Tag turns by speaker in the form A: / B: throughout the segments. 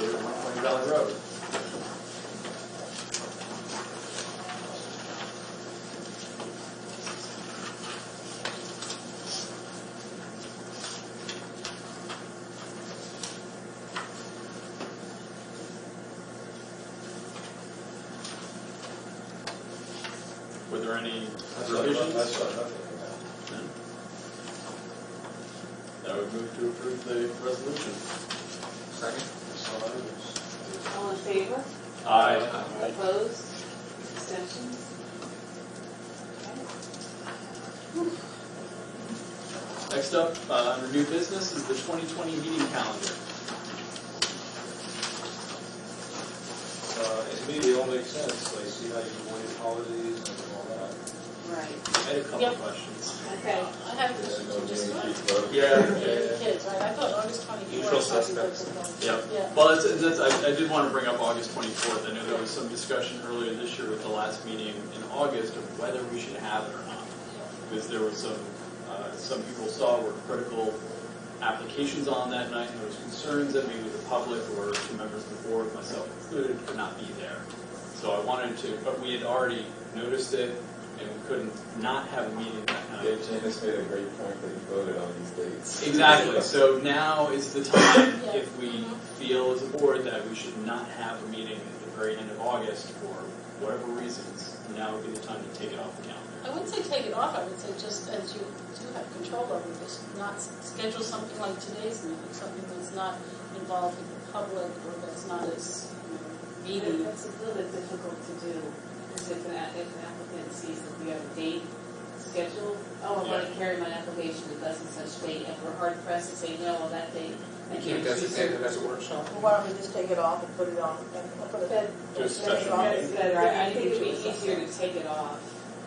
A: Hundred Dollar Road. Were there any revisions? I would move to approve the resolution.
B: Second?
C: All in favor?
A: Aye.
C: Opposed? Abstentions?
A: Next up, uh, under new business is the 2020 meeting calendar.
B: Uh, to me, it all makes sense, like, see how you avoid holidays and all that.
C: Right.
A: I had a couple
D: Yep.
A: questions.
C: Okay.
D: I have this, just one,
A: Yeah.
D: kids, right, I thought August
B: Usual
D: twenty-fourth, something
B: suspects.
D: like
A: Yep.
D: Yeah,
A: Well, it's, it's- that's, I, I did want to bring up August 24th. I know there was some discussion earlier this year with the last meeting in August of whether we should have it or not. Because there were some, uh, some people saw were critical applications on that night, and there was concerns that maybe the public or some members of the board, myself included, could not be there. So I wanted to, but we had already noticed it, and we couldn't not have a meeting that night.
E: Yeah, Janice made a great point that you voted on these dates.
A: Exactly, so now is the time,
D: Yeah.
A: if we feel as a board that we should not have a meeting at the very end of August for whatever reasons, now would be the time to take it off the calendar.
D: I wouldn't say take it off, I would say just as you do have control over this, not s- schedule something like today's meeting, something that's not involved with the public, or that's not as, you know, meaty.
C: That's a little bit difficult to do, because if an, a- if an applicant sees that we have a date scheduled, oh, I'm gonna carry my application to thus and such date, and we're hard pressed to say no on that date. I can't choose it.
E: as a workshop?
F: Well, Why don't we just take it off and put it on, and put it
C: That-
A: Just
F: Take it
A: special
F: off.
C: That's better, I I think it'd be
F: Individual.
C: easier to take it off,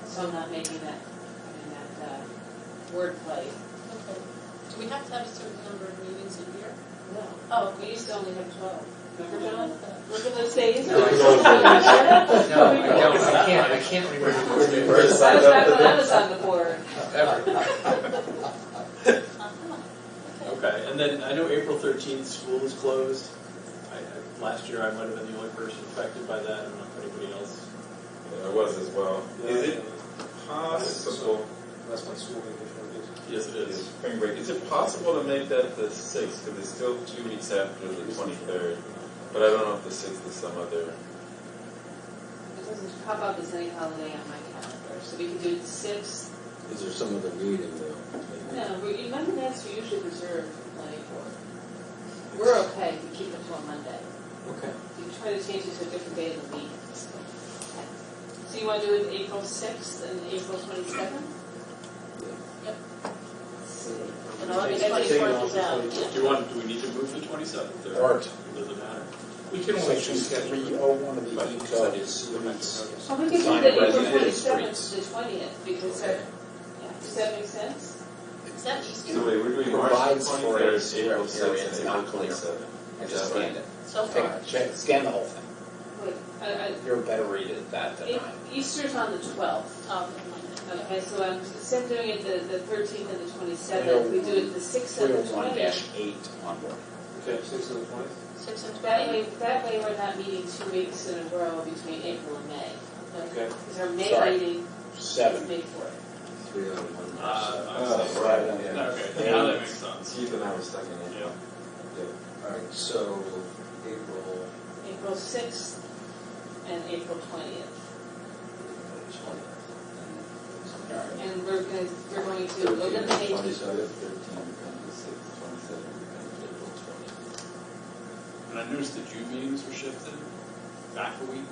C: so I'm not making that, I mean, that, uh, wordplay.
D: Okay. Do we have to have a certain number of meetings a year?
C: No.
D: Oh,
C: We used to only have twelve, remember
D: we're done
C: John?
D: with that.
C: Look at those days.
B: No, I
C: That
G: No, I don't, I can't, I can't remember
E: When you first signed
C: was
E: up
C: back
E: for
C: when I was
E: this?
C: on the board.
G: ever.
D: Uh-huh. Okay.
A: Okay, and then I know April thirteenth, school is closed. I, I, last year I might have been the only person affected by that, I don't know if anybody else.
E: Yeah, I was as well.
B: Is it
E: So,
B: possible, that's my school vacation,
A: Yes, it is.
E: spring break, is it possible to make that the sixth, because it's still two weeks after the twenty-third? But I don't know if the sixth is some other,
C: It doesn't pop up as any holiday on my calendar, so we could do the sixth.
H: Is there some other meeting though?
C: No, we, you remember that's usually reserved money for. We're okay if we keep it to a Monday.
H: Okay.
C: You try to change it to a different day of the week. So you want to do it April sixth and April twenty-seventh?
D: And August
C: Take it off
D: twenty-fourth is out,
B: before
D: yeah.
A: Do you want, do we need to move the twenty-seventh or?
G: Art.
A: Doesn't matter.
G: We can only choose three oh one of the E codes.
C: Well, we could do
H: Sign
C: the
H: of
C: April
H: residence
C: twenty-seventh to the twentieth, because, that- yeah, does that make sense?
D: Is that Easter?
E: so wait, we're doing March
G: Provides for
E: twenty-third,
G: a square
E: April
G: area
E: sixth,
G: that's
E: and April
G: not clear.
E: twenty-seventh.
G: And just scan it.
D: So
G: Take-
D: far.
G: check- Scan the whole thing.
C: Wait, I, I,
G: You're better read it that than
C: It-
G: I.
C: Easter's on the twelfth,
D: Oh, never mind.
C: okay, so I'm, instead of doing it the, the thirteenth and the twenty-seventh, we do it the sixth
G: Three
C: and the
G: oh one
C: twentieth.
G: dash eight on board.
B: Okay, six to the twentieth?
D: Six and
C: That
D: twelve.
C: way, that way we're not meeting two weeks in a row between April and May.
B: Okay.
C: Because our May
G: Sorry.
C: meeting is
G: Seven.
C: May fourth.
H: Three
G: oh
H: out of
A: Uh,
H: one.
A: I
E: Oh,
A: was-
E: right, yeah.
A: Okay, now that makes sense.
E: Keith and I were stuck in it.
A: Yeah.
E: Yeah.
H: All right, so April
C: April sixth and April twentieth.
H: twentieth.
C: And we're gonna, we're going to
G: oh
C: eliminate
E: Twenty-third, thirteen, becomes the sixth, twenty-seventh, becomes April twentieth.
A: And I noticed the June meetings were shifted back a week.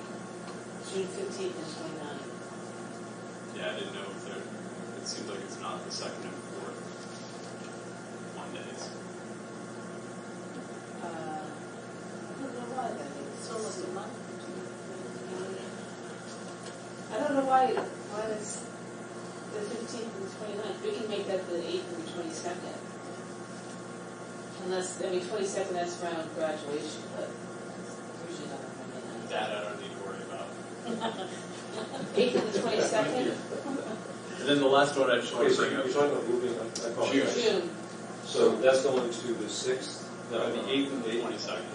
C: June fifteenth and twenty-ninth.
A: Yeah, I didn't know if there, it seems like it's not the second and fourth Mondays.
C: Uh, I don't know why that is.
D: It's almost a month.
C: I don't know why, why it's the fifteenth and the twenty-ninth, we can make that the eighth and the twenty-second. Unless, I mean, twenty-second, that's around graduation, but it's usually not on Monday night.
A: That I don't need to worry about.
C: Eighth and the twenty-second,
A: And then the last one I just want to
B: Okay, so
A: bring
B: you're
A: up,
B: talking about moving, I I apologize.
A: June.
C: June.
B: So that's going to the sixth?
A: the eighth and the twenty-second.